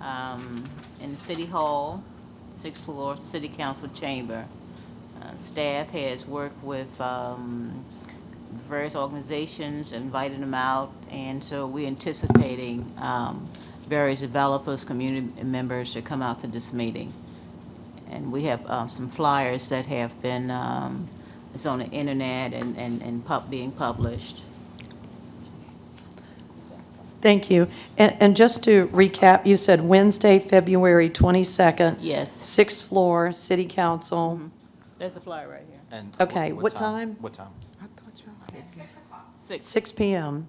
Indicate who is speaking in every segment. Speaker 1: um, in the City Hall, sixth floor, City Council Chamber. Uh, Staff has worked with um, various organizations, invited them out, and so we're anticipating um, various developers, community members to come out to this meeting. And we have um, some flyers that have been, um, it's on the internet and, and and pub, being published.
Speaker 2: Thank you. And, and just to recap, you said Wednesday, February 22nd,
Speaker 1: Yes,
Speaker 2: sixth floor, City Council.
Speaker 1: there's a flyer right here.
Speaker 3: And
Speaker 2: Okay, what time?
Speaker 3: What time?
Speaker 1: Six.
Speaker 2: Six PM.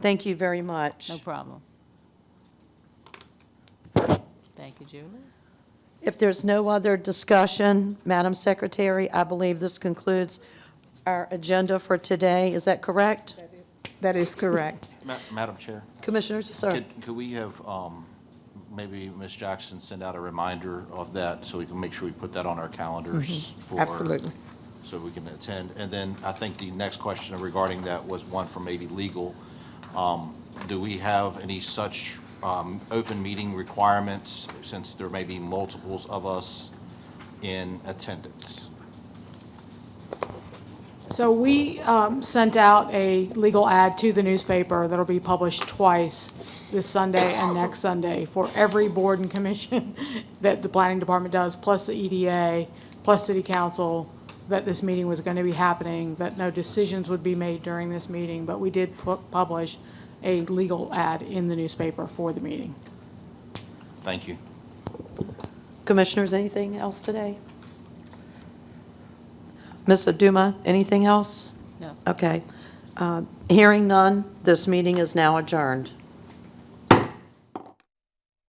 Speaker 2: Thank you very much.
Speaker 1: Mm-hmm. No problem. Thank you, Julie.
Speaker 2: If there's no other discussion, Madam Secretary, I believe this concludes our agenda for today. Is that correct?
Speaker 4: That is correct.
Speaker 3: Ma- Madam Chair,
Speaker 2: Commissioners, sir?
Speaker 3: could, could we have, um, maybe Ms. Jackson send out a reminder of that so we can make sure we put that on our calendars
Speaker 2: Mm-hmm.
Speaker 3: for.
Speaker 4: Absolutely.
Speaker 3: So we can attend. And then I think the next question regarding that was one from maybe legal. Um, Do we have any such, um, open meeting requirements since there may be multiples of us in attendance?
Speaker 5: So we um, sent out a legal ad to the newspaper that'll be published twice, this Sunday and next Sunday, for every board and commission that the planning department does, plus the EDA, plus city council, that this meeting was going to be happening, that no decisions would be made during this meeting, but we did pu- publish a legal ad in the newspaper for the meeting.
Speaker 3: Thank you.
Speaker 2: Commissioners, anything else today? Ms. Aduma, anything else?
Speaker 1: No.
Speaker 2: Okay. Uh, Hearing none, this meeting is now adjourned.